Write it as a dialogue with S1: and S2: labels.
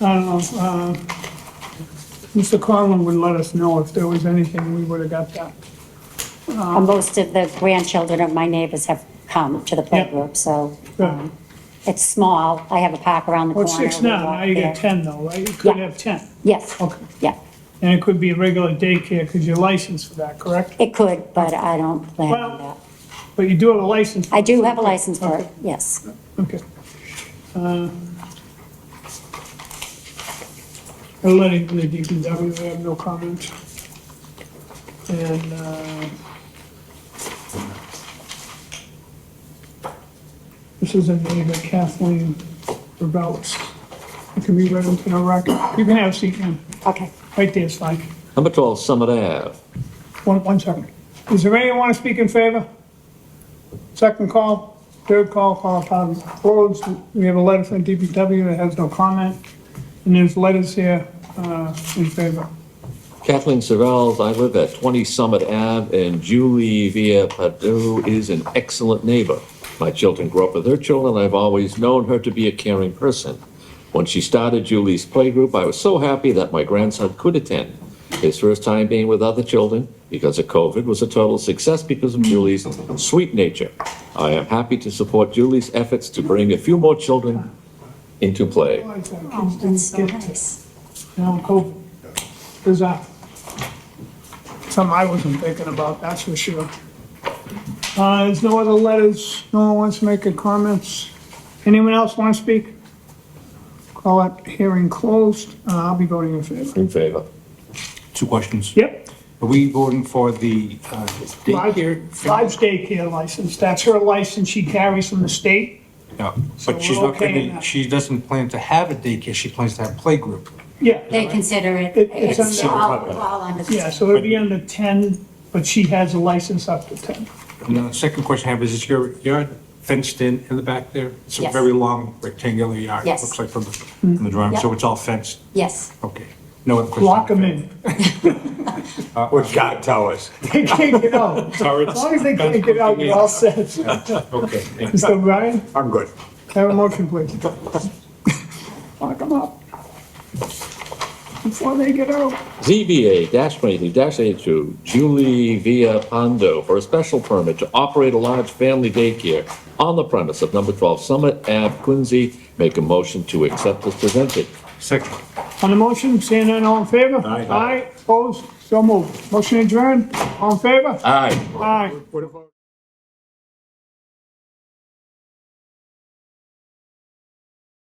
S1: I don't know, uh, Mr. Conlon would let us know if there was anything, we would have got that.
S2: Uh, Most of the grandchildren of my neighbors have come to the playgroup, so
S1: Good.
S2: um, it's small. I have a park around the
S1: Well,
S2: corner.
S1: it's six
S2: We
S1: now,
S2: walk
S1: now you
S2: there.
S1: got ten though, right? You could
S2: Yeah.
S1: have ten.
S2: Yes,
S1: Okay.
S2: yeah.
S1: And it could be a regular daycare, because you're licensed for that, correct?
S2: It could, but I don't plan on
S1: Well-
S2: that.
S1: But you do have a license.
S2: I do have a license for it,
S1: Okay.
S2: yes.
S1: Okay. Uh, I'll let it, the DPW, I have no comment. And, uh, this is a neighbor Kathleen Rebels. It can be read into the record. You can have a seat, ma'am.
S2: Okay.
S1: Right there, it's fine.
S3: Number 12, Summit Ave.
S1: One, one second. Is there anyone want to speak in favor? Second call, third call, call upon roads. We have a letter from DPW that has no comment. And there's letters here, uh, in favor.
S3: Kathleen Sorrells, I live at 20 Summit Ave, and Julie Via Padu is an excellent neighbor. My children grew up with her children, and I've always known her to be a caring person. When she started Julie's playgroup, I was so happy that my grandson could attend. His first time being with other children because of COVID was a total success because of Julie's sweet nature. I am happy to support Julie's efforts to bring a few more children into play.
S2: Oh, that's so nice.
S1: Now, COVID, is that something I wasn't thinking about, that's for sure. Uh, there's no other letters, no one wants to make a comments. Anyone else want to speak? Call it hearing closed, Uh, I'll be voting in favor.
S3: In favor?
S4: Two questions.
S1: Yep,
S4: Are we voting for the uh, daycare?
S1: Five's daycare license, that's her license she carries from the state?
S4: No,
S1: So
S4: but she's
S1: we're
S4: not
S1: okay in
S4: gonna,
S1: that.
S4: she doesn't plan to have a daycare, she plans to have playgroup.
S1: Yeah,
S2: They consider it,
S1: It- it's
S2: it's
S1: under-
S2: all all under
S1: yeah,
S2: the,
S1: so it'd be under 10, but she has a license up to 10.
S4: And the second question I have is, is your yard fenced in in the back there? It's a
S2: Yes.
S4: very long rectangular yard, it
S2: Yes.
S4: looks like from the, from the drawing, so
S2: Yep.
S4: it's all fenced?
S2: yes.
S4: Okay, no other questions?
S1: Mm. Lock them in.
S5: What God tell us.
S1: They can't get out. As long as they can't get out, you're all set. Mr.
S4: Okay, thank you.
S1: Ryan,
S5: I'm good.
S1: have a motion, please. Lock them up. Before they get out.
S3: ZBA dash twenty-three dash eighty-two, Julie Via Pondo for a special permit to operate a large family daycare on the premise of number twelve Summit Ave, Quincy. Make a motion to accept as presented.
S4: Second.
S1: On the motion, seeing none, all in favor?
S4: Aye.
S1: Aye, opposed, so moved. Motion adjourned, all in favor?
S3: Aye.
S1: Aye.
S4: What about?